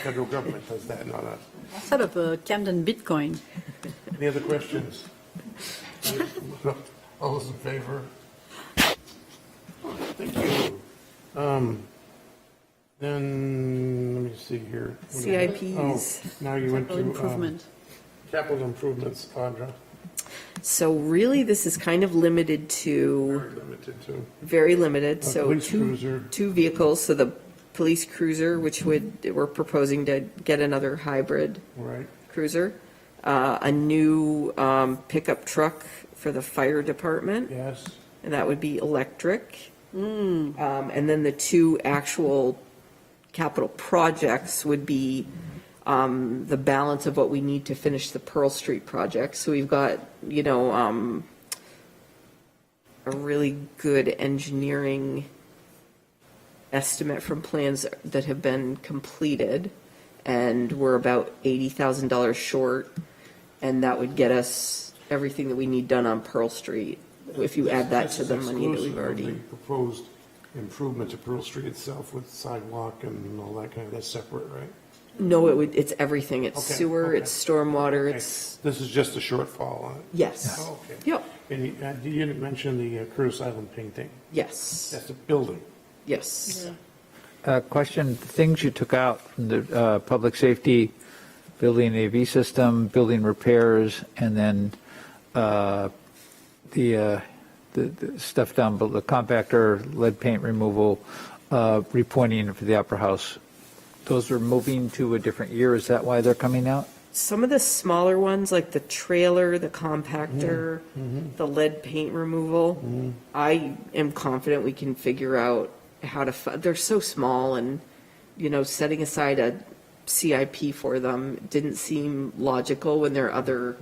Federal government does that, not us. Sort of a Camden Bitcoin. Any other questions? All those in favor? Thank you. Um, Then, let me see here. What is that? CIPs. Oh, Now you went to. Capital um, improvement. Capital improvements, Audra, So really, this is kind of limited to, very limited to. very limited, so police two, cruiser. two vehicles, so the police cruiser, which would, we're proposing to get another hybrid Right, cruiser, uh, a new um, pickup truck for the fire department, yes, and that would be electric. Um, And then the two actual capital projects would be um, the balance of what we need to finish the Pearl Street project. So we've got, you know, um, a really good engineering estimate from plans that have been completed, and we're about $80,000 short, and that would get us everything that we need done on Pearl Street, if you add that This to is the money that exclusive we've of already. the Proposed improvement to Pearl Street itself with sidewalk and all that kind of, that's separate, right? No, it would, it's everything. It's Okay, sewer, okay. it's stormwater, Okay, it's, This is just a shortfall on it? yes. Oh, okay. Yep, And you, uh, you didn't mention the uh, Curtis Island painting. yes, That's a building. yes. Uh, Question, things you took out from the uh, public safety, building AV system, building repairs, and then uh, the, uh, the the stuff down, but the compactor, lead paint removal, uh, repointing for the Opera House. Those are moving to a different year. Is that why they're coming out? Some of the smaller ones, like the trailer, the compactor, Mm-hmm. the lead paint removal, I am confident we can figure out how to, fu- they're so small and, you know, setting aside a CIP for them didn't seem logical when there are other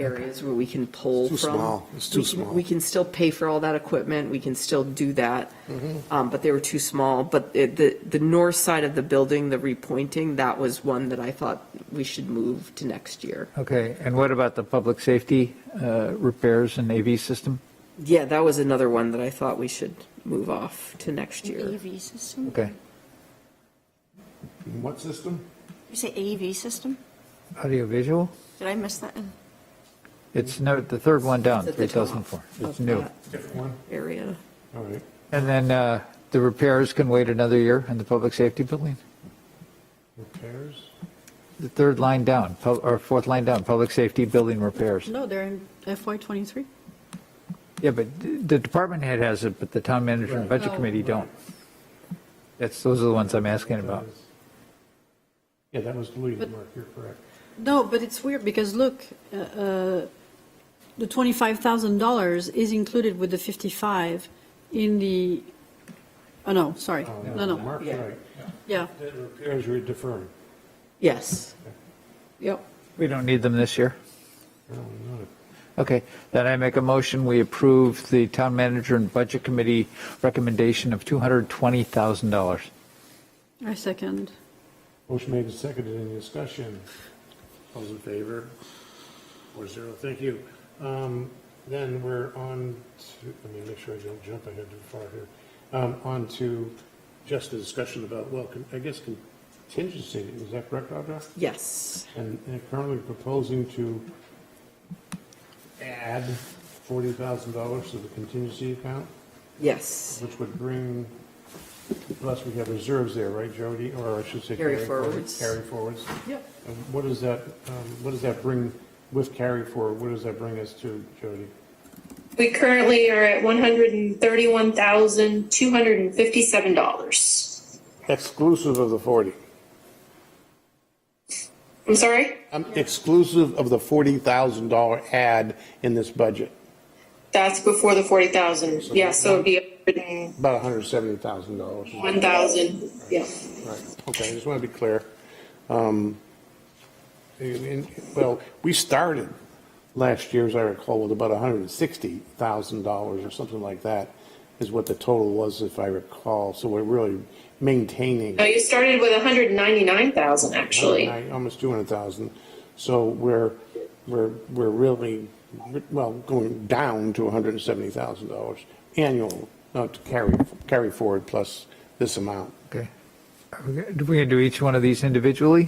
areas where we can pull Mm-hmm. It's too from. small. It's too We can- small. We can still pay for all that equipment, we can still do that, Mm-hmm. um, but they were too small. But it- the, the north side of the building, the repointing, that was one that I thought we should move to next year. Okay, and what about the public safety uh, repairs and AV system? Yeah, that was another one that I thought we should move off to next year. AV system? Okay, What system? You say AV E system? audiovisual? Did I miss that? It's no, the third one down, It's at the top 3004. It's of new. that Different one. Area. All right. And then uh, the repairs can wait another year in the public safety building? Repairs? The third line down, pub- or fourth line down, public safety building repairs. No, they're in FY '23. Yeah, but the department head has it, but the town manager and Right. budget committee don't. That's, those are the ones I'm asking about. Yeah, that was Louis' mark, you're correct. No, but it's weird because look, uh, uh, the $25,000 is included with the 55 in the, oh no, sorry, no, no, Mark's right. yeah, The repairs were deferring. Yes. Yep. We don't need them this year. No, not a- Okay, then I make a motion, we approve the town manager and budget committee recommendation of $220,000. I second. Motion made and seconded, any discussion? All Those in favor? Four zero, thank you. Um, Then we're on to, let me make sure I don't jump ahead too far here. Um, On to just the discussion about, well, con- I guess contingency, is that correct, Audra? Yes. And and currently proposing to add forty thousand dollars to the contingency account, Yes. which would bring, plus we have reserves there, right, Jody? Or I should say. Carry forwards. Carry forwards. Yep. And What does that, um, what does that bring with carry forward? What does that bring us to, Jody? We currently are at one hundred and thirty-one thousand, two hundred and fifty-seven dollars. Exclusive of the 40. I'm sorry? Um, Exclusive of the $40,000 add in this budget, That's before the forty thousand. Yeah, so it'd be one about $170,000. thousand, yeah. Right, okay, I just want to be clear. Um, and- and- Well, we started last year, as I recall, with about $160,000 or something like that, is what the total was, if I recall. So we're really maintaining. No, you started with hundred and ninety-nine thousand, actually. Nine- Almost 200,000. So we're, we're, we're really, well, going down to $170,000 annual, uh, to carry, carry forward plus this amount. Okay. We're going to do each one of these individually?